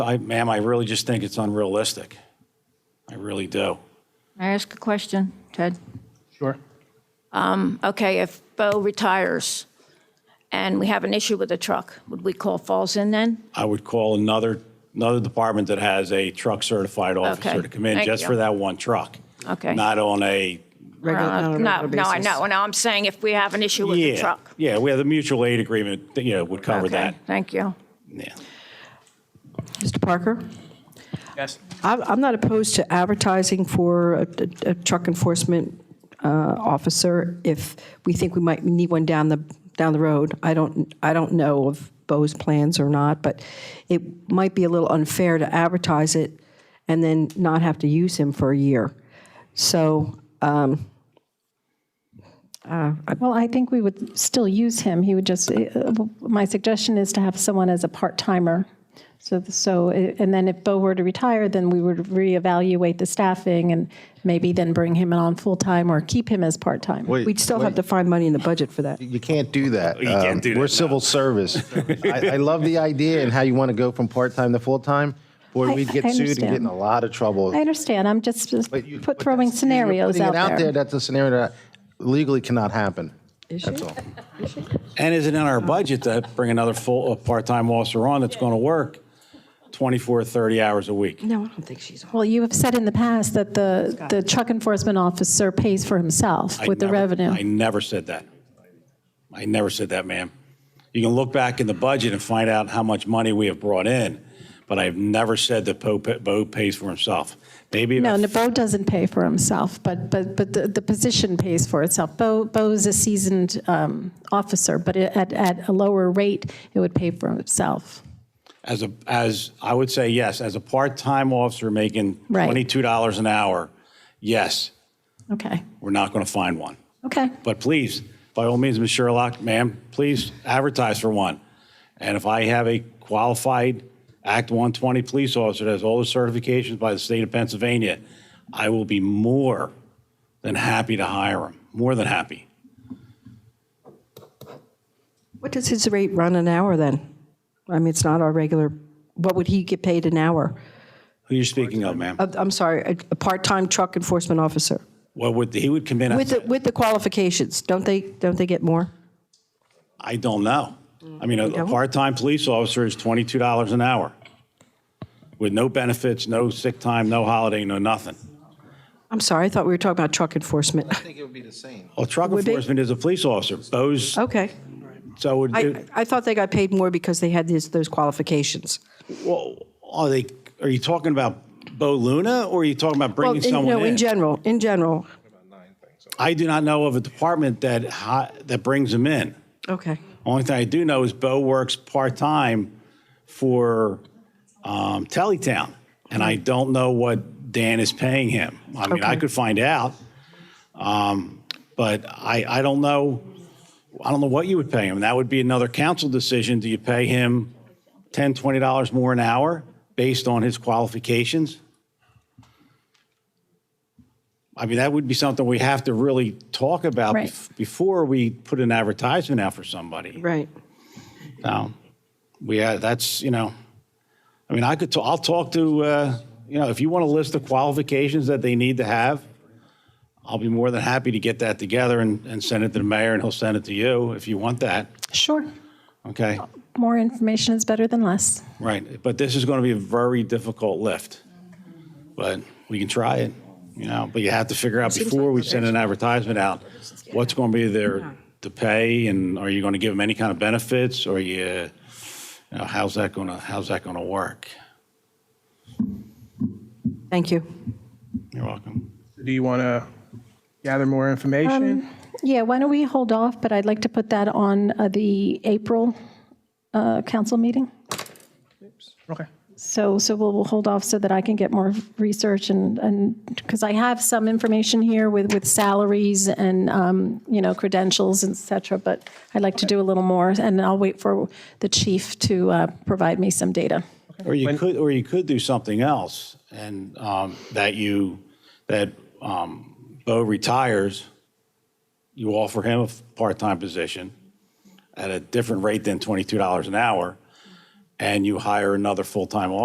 I, ma'am, I really just think it's unrealistic. I really do. May I ask a question, Ted? Sure. Okay, if Bo retires and we have an issue with a truck, would we call Falls in then? I would call another, another department that has a truck certified officer Okay. to come in Thank just you. for that one truck. Okay. Not on a, Regular- Uh, on a No, regular no, I basis. know. No, I'm saying if we have an issue with the yeah, truck. yeah, we have the mutual aid agreement, that, you know, would cover Okay, that. Thank you. Yeah. Mr. Parker? Yes. I'm I'm not opposed to advertising for a- a a truck enforcement uh, officer if we think we might need one down the, down the road. I don't, I don't know of Bo's plans or not, but it might be a little unfair to advertise it and then not have to use him for a year. So Well, I think we would still use him. He would just, uh, my suggestion is to have someone as a part-timer. So, so, uh, and then if Bo were to retire, then we would reevaluate the staffing and maybe then bring him on full-time or keep him as part-time. Wait, we'd still have wait, to find money in the budget for that. You can't do that. You can't do that, We're no. civil service. I, I love the idea and how you want to go from part time to full time. Boy, I- we'd get I sued and get in understand. a lot of trouble. I understand. I'm just But you- put but throwing that's- you're scenarios putting out it out there. there. That's a scenario that legally cannot happen. That's all. And is it in our budget to bring another full, a part-time officer on that's going to work 24, 30 hours a week? No, I don't think she's on. Well, you have said in the past that the, the truck enforcement officer pays for himself I with the never- revenue. I never said that. I never said that, ma'am. You can look back in the budget and find out how much money we have brought in, but I've never said that Bo, Bo pays for himself. Maybe. if- No, no, Bo doesn't pay for himself, but, but, but the, the position pays for itself. Bo, Bo's a seasoned um, officer, but it- at, at a lower rate, it would pay for himself. As a, as, I would say yes, as a part-time officer making Right. $22 an hour, yes, Okay, we're not going to find one. okay. But please, by all means, Ms. Sherlock, ma'am, please advertise for one. And if I have a qualified Act 120 police officer that has all the certifications by the state of Pennsylvania, I will be more than happy to hire him, more than happy. What does his rate run an hour then? I mean, it's not our regular, what would he get paid an hour? Who are you speaking of, ma'am? I'm sorry, a, a part-time truck enforcement officer What would, he would come in, with the, at- with the qualifications. Don't they don't they get more? I don't know. I mean, a a don't? part-time police officer is $22 an hour with no benefits, no sick time, no holiday, no nothing. I'm sorry, I thought we were talking about truck enforcement. think it would be the same. Well, truck Would be- enforcement is a police officer. Those, Okay, so it- I, I thought they got paid more because they had these those qualifications. Well, are they, are you talking about Bo Luna or are you talking about bringing in, someone no, in in? general, in general. I do not know of a department that, hi- that brings them in. Okay, Only thing I do know is Bo works part-time for um, Teletown. And I don't know what Dan is paying him. I mean, I Okay. could find out. um, But I, I don't know, I don't know what you would pay him. That would be another council decision. Do you pay him 10, 20 dollars more an hour based on his qualifications? I mean, that would be something we have to really talk about Right. bef- before we put an advertisement out for somebody. right. No, we, uh, that's, you know, I mean, I could, ta- I'll talk to, uh, you know, if you want to list the qualifications that they need to have, I'll be more than happy to get that together and, and send it to the mayor and he'll send it to you if you want that. Sure, Okay, more information is better than less. right. But this is going to be a very difficult lift. But we can try it, you know, but you have to figure out before we send an advertisement out, what's going to be their, to pay and are you going to give them any kind of benefits or you, you know, how's that going to, how's that going to work? Thank you. You're welcome. Do you want to gather more Um, information? Yeah, why don't we hold off, but I'd like to put that on uh, the April uh, council meeting. Okay. So, so we'll, we'll hold off so that I can get more research and, and, because I have some information here with, with salaries and, um, you know, credentials, et cetera, but I'd like to do a little more, and I'll wait for the chief to uh, provide me some data. Or you could, or you could do something else and um, that you, that um, Bo retires, you offer him a f- part-time position at a different rate than $22 an hour, and you hire another full-time